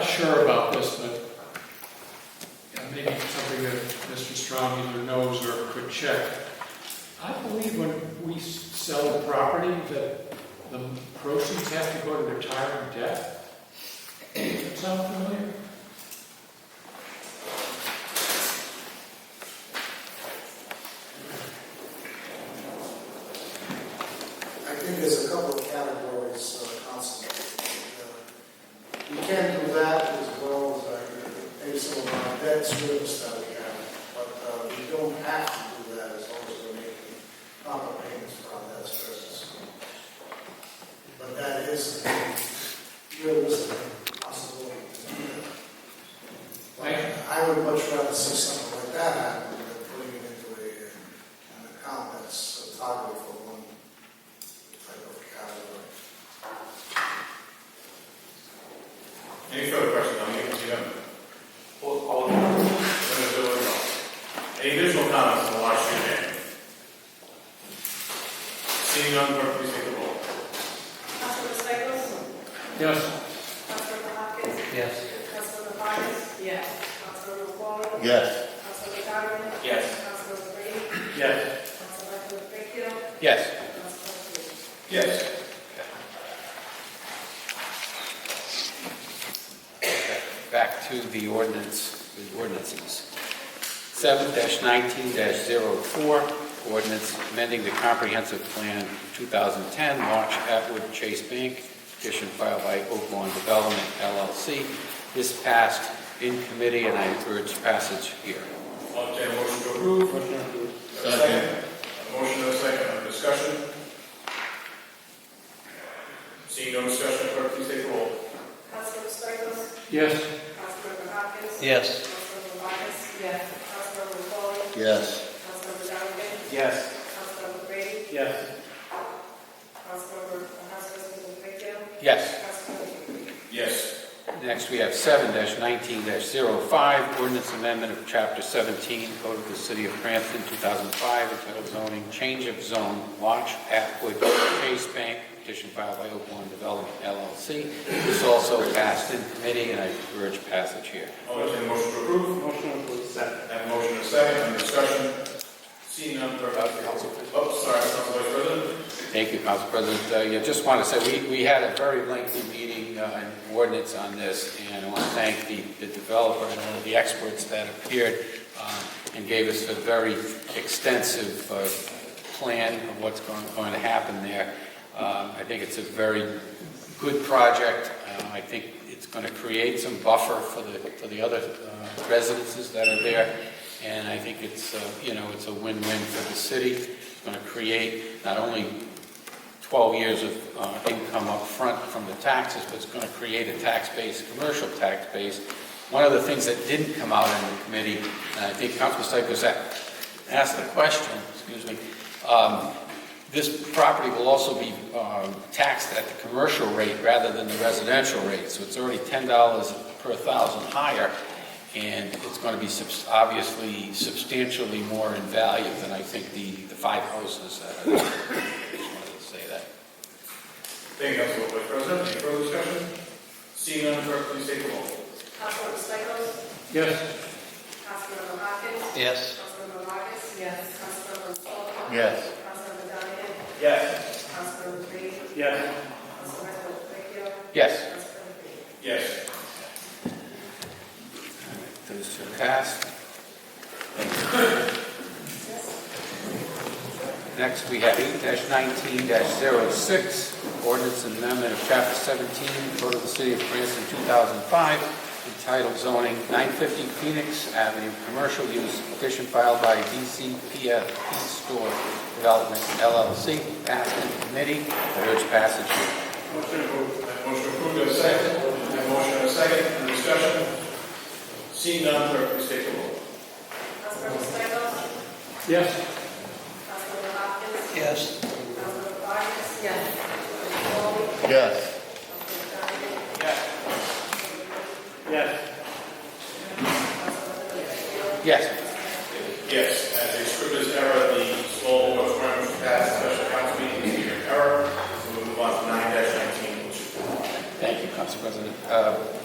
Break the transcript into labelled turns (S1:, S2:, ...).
S1: sure about this, but yeah, maybe something that Mr. Strong either knows or could check. I believe when we s- sell a property, that the proceeds have to go to retiring debt. Sound familiar?
S2: I think there's a couple of categories, uh, council. You can do that as well as I pay some of our debt service that we have, but uh, we don't have to do that as long as we're making proper payments for our debt service. But that is a realistic possibility. to do that. But I would much rather see something like that happen than putting it into a, uh, an account that's targeted for one type of category.
S3: Any further questions on the agency member? All, all. Any additional comments on the last year's meeting? Seeing none, clerk, please take the roll.
S4: Councilor Stichels?
S1: Yes.
S4: Councilor Hopkins?
S5: Yes.
S4: Councilor Vargas? Yes. Councilor Paul?
S6: Yes.
S4: Councilor Donovan?
S3: Yes.
S4: Councilor Brady?
S3: Yes.
S4: Councilor Baker?
S6: Yes.
S4: Councilor Hughes?
S3: Yes.
S5: Back to the ordinance, the ordinances. Seven nineteen 4 ordinance amending the comprehensive plan two thousand ten, March Atwood Chase Bank, petition filed by Oaklawn Development LLC. This passed in committee, and I urge passage here.
S3: I'll entertain a motion to approve. Motion approved. Second. A motion and a second, under discussion. Seeing no discussion, clerk, please take the roll.
S4: Councilor Stichels?
S1: Yes.
S4: Councilor Hopkins?
S6: Yes.
S4: Councilor Vargas? Yes. Councilor Paul?
S6: Yes.
S4: Councilor Donovan?
S3: Yes.
S4: Councilor Brady?
S3: Yes.
S4: Councilor, Councilor Baker?
S5: Yes.
S4: Councilor Hughes?
S3: Yes.
S5: Next, we have seven nineteen 5 ordinance amendment of chapter seventeen, code of the city of Cranston, two thousand five, entitled zoning, change of zone, launch Atwood Chase Bank, petition filed by Oaklawn Development LLC. This also passed in committee, and I urge passage here.
S3: I'll entertain a motion to approve. Motion approved. Second. Have a motion and a second, under discussion. Seeing none, clerk, please take the roll. Oh, sorry, Council Vice President.
S5: Thank you, Council President. Uh, yeah, just want to say, we, we had a very lengthy meeting uh, and ordinance on this, and I want to thank the the developer and all of the experts that appeared uh, and gave us a very extensive uh, plan of what's going, going to happen there. Um, I think it's a very good project. Uh, I think it's going to create some buffer for the, for the other uh, residences that are there. And I think it's, uh, you know, it's a win-win for the city. It's going to create not only 12 years of uh, income up front from the taxes, but it's going to create a tax base, commercial tax base. One of the things that didn't come out in the committee, and I think Councilman Stichels a- asked the question, excuse me, um, this property will also be um, taxed at the commercial rate rather than the residential rate, so it's already $10 per thousand higher, and it's going to be subs- obviously substantially more in value than I think the the five houses that are just wanted to say that.
S3: Thank you, Council Vice President. Any further discussion? Seeing none, clerk, please take the roll.
S4: Councilor Stichels?
S1: Yes.
S4: Councilor Hopkins?
S6: Yes.
S4: Councilor Vargas? Yes. Councilor Paul?
S6: Yes.
S4: Councilor Donovan?
S3: Yes.
S4: Councilor Brady?
S3: Yes.
S4: Councilor Baker?
S5: Yes.
S4: Councilor Hughes?
S3: Yes.
S5: Those two passed. Next, we have eight nineteen 6 ordinance amendment of chapter seventeen, code of the city of Cranston, two thousand five, entitled zoning, nine fifty Phoenix Avenue, commercial use, petition filed by DCPF East Store Development LLC, passed in committee, I urge passage here.
S3: Motion approved. Have a motion approved, have a second. Have a motion and a second, under discussion. Seeing none, clerk, please take the roll.
S4: Councilor Stichels?
S1: Yes.
S4: Councilor Hopkins?
S6: Yes.
S4: Councilor Vargas? Yes. Councilor Paul?
S6: Yes.
S4: Councilor Donovan?
S3: Yes.
S5: Yes.
S3: Yes, as a scrivener's error, the small board requirement was passed, special council meeting is here in error. So we'll move on to nine nineteen, which
S5: Thank you, Council President. Uh,